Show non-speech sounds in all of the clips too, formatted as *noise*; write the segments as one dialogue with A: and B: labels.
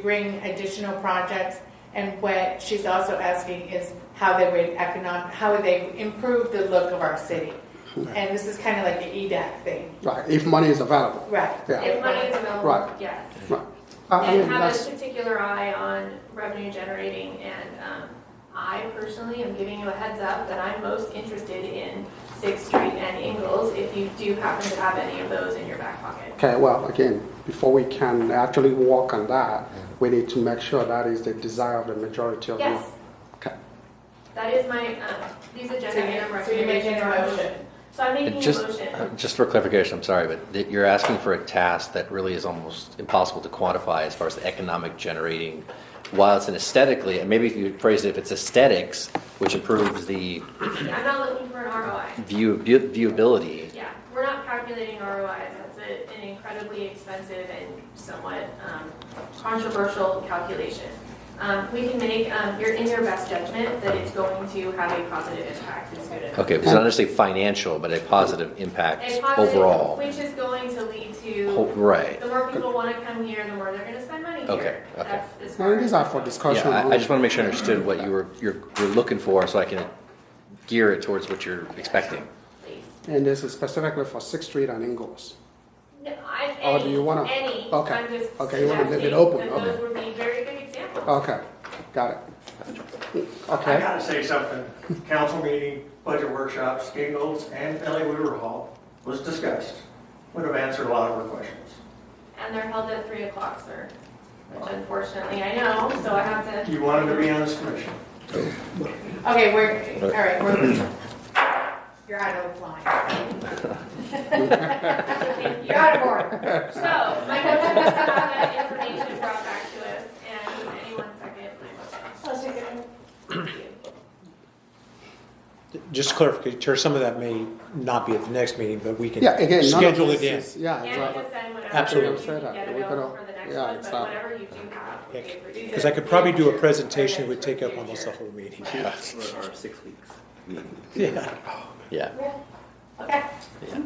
A: bring additional projects, and what she's also asking is how they would econom, how would they improve the look of our city? And this is kind of like the E EDAC thing,
B: Right, if money is available.
A: right?
B: Yeah.
C: If money is available,
B: Right.
C: yes.
B: Right. I- I mean,
C: And have
B: that's-
C: a particular eye on revenue generating and, um, I personally am giving you a heads up that I'm most interested in Sixth Street and Ingles if you do happen to have any of those in your back pocket.
B: Okay, well, again, before we can actually work on that, we need to make sure that is the desire of the majority of the.
C: Yes,
B: Okay.
C: that is my, um, these
A: So
C: agenda
A: you-
C: item
A: so you're making
C: recommendations.
A: a
C: are-
A: motion.
C: So I'm making
D: It
C: a
D: just,
C: motion.
D: just for clarification, I'm sorry, but that you're asking for a task that really is almost impossible to quantify as far as the economic generating. While it's an aesthetically, and maybe if you phrase it, if it's aesthetics, which improves the
C: I'm not looking for an ROI.
D: view, view- viewability,
C: Yeah, we're not calculating ROIs. That's a- an incredibly expensive and somewhat um, controversial calculation. Um, We can make, um, you're in your best judgment that it's going to have a positive impact in student.
D: okay, it's not necessarily financial, but a positive impact
C: A positive,
D: overall.
C: Which is going to lead
D: Ho-
C: to,
D: Right.
C: the more people want to come here, the more they're going to spend money here.
D: Okay, okay.
C: That's as
B: Well,
C: far
B: these
C: as-
B: are for discussion.
D: Yeah, I, I just want to make sure I understood what you were, you're, you're looking for so I can gear it towards what you're expecting.
C: Please.
B: And this is specifically for Sixth Street and Ingalls.
C: No, I,
B: Oh, do
C: any,
B: you wanna-
C: any.
B: okay,
C: I'm just
B: okay, you wanna leave it
C: suggesting
B: open,
C: that
B: okay.
C: Those would be very good examples.
B: Okay, got it.
E: I
B: Okay,
E: gotta say something. Council meeting, budget workshops, Ingalls, and LA Weaver Hall was discussed. Would have answered a lot of her questions.
C: And they're held at three o'clock, sir,
B: Oh.
C: which unfortunately I know, so I have to.
E: You wanted to be on this commission.
A: Okay, we're, all right, we're, you're out of line.
C: *laughs* Thank you.
A: You're out of order.
C: So, my motion is to have that information brought back to us, and anyone second my motion. Thank you.
F: Just clarify, Chair, some of that may not be at the next meeting, but we can
B: yeah, again, none of
F: schedule it
B: this
F: in.
B: is, yeah,
C: And you
B: exactly.
C: can send whatever
F: Absolutely.
C: you can get
B: We
C: available
B: could all-
C: for the next
B: yeah,
C: one,
B: it's
C: but
B: not-
C: whatever you do have. we appreciate
F: Because I could probably do a presentation, it would take up almost the whole meeting.
G: for our six weeks.
F: Yeah,
D: Yeah.
A: Okay,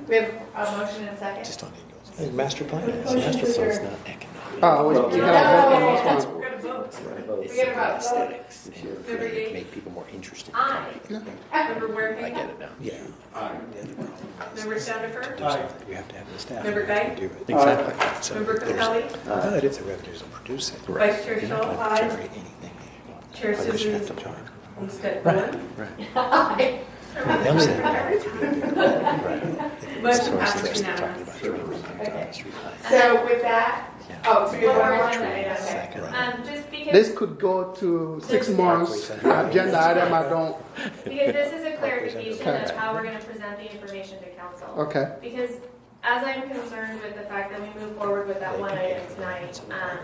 A: we have a motion and a second.
F: just on Ingalls. I think Master plan is, master plan's not economic.
B: Oh, wait, you gotta vote on this one.
C: We're gonna vote.
D: It's
A: We gotta vote.
D: aesthetics. and
C: Number
D: really
C: eight.
D: Make people more interested.
C: I, member
D: I
C: Waring,
D: get it now.
F: Yeah.
C: member Senator,
F: Something We have to have the staff.
A: Member Guy?
F: do it.
D: Exactly.
F: So
C: member
F: there's-
C: Capelli,
F: But if the revenues don't produce it.
D: Right.
C: vice chair
F: you're not
C: Shaw,
F: gonna
C: aye,
F: generate anything that you want.
C: chair
F: Others you have
C: Susan,
F: to charge.
C: Olmstead
F: Right.
C: Bowen.
F: Them saying that. Right. If
C: Motion
F: it was the rest of
C: passes
F: us talking
C: unanimously.
F: about generating economic
A: So with that,
F: revive.
A: oh, so you're
C: One more
A: out of
C: one that I
A: order.
C: don't
A: Okay.
C: know. Um, just because,
B: This could go to six months, agenda item, I don't,
C: because this is a clarification of
B: Okay.
C: how we're gonna present the information to council.
B: okay.
C: Because as I'm concerned with the fact that we move forward with that one item tonight, um,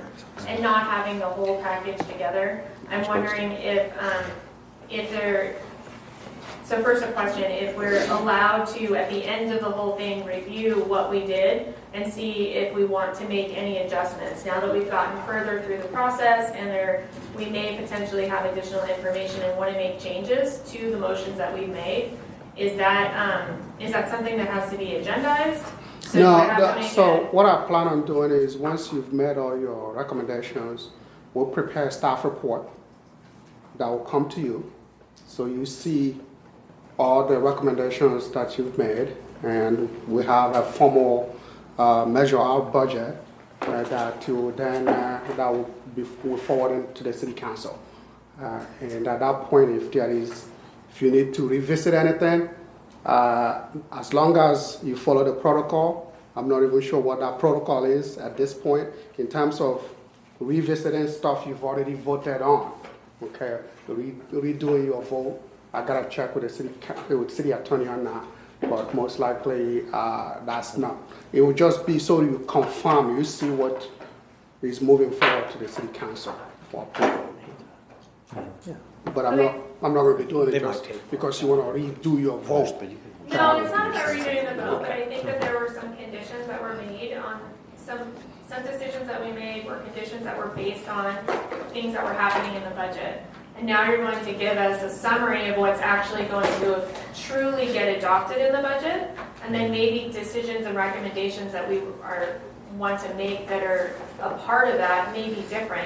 C: and not having the whole package together, I'm wondering if, um, if there, so first a question, if we're allowed to, at the end of the whole thing, review what we did and see if we want to make any adjustments, now that we've gotten further through the process and there, we may potentially have additional information and want to make changes to the motions that we've made. Is that, um, is that something that has to be agendized? So do I
B: No,
C: have to
B: that-
C: make
B: so
C: it-
B: what I plan on doing is, once you've made all your recommendations, we'll prepare a staff report that will come to you. So you see all the recommendations that you've made, and we have a formal uh, measure out budget uh, that you will then, uh, that will be will forwarded to the city council. Uh, And at that point, if there is, if you need to revisit anything, uh, as long as you follow the protocol, I'm not even sure what that protocol is at this point, in terms of revisiting stuff you've already voted on, okay? Re- Redoing your vote, I gotta check with the city, ca- with city attorney on that, but most likely, uh, that's not. It will just be so you confirm, you see what is moving forward to the city council for approval. But I'm not, I'm not gonna be doing
F: They
B: it
F: might
B: just
F: take-
B: because you wanna redo your vote.
C: No, it's not that we're doing the vote, but I think that there were some conditions that were made on, some, some decisions that we made were conditions that were based on things that were happening in the budget. And now you're going to give us a summary of what's actually going to truly get adopted in the budget, and then maybe decisions and recommendations that we are, want to make that are a part of that may be different.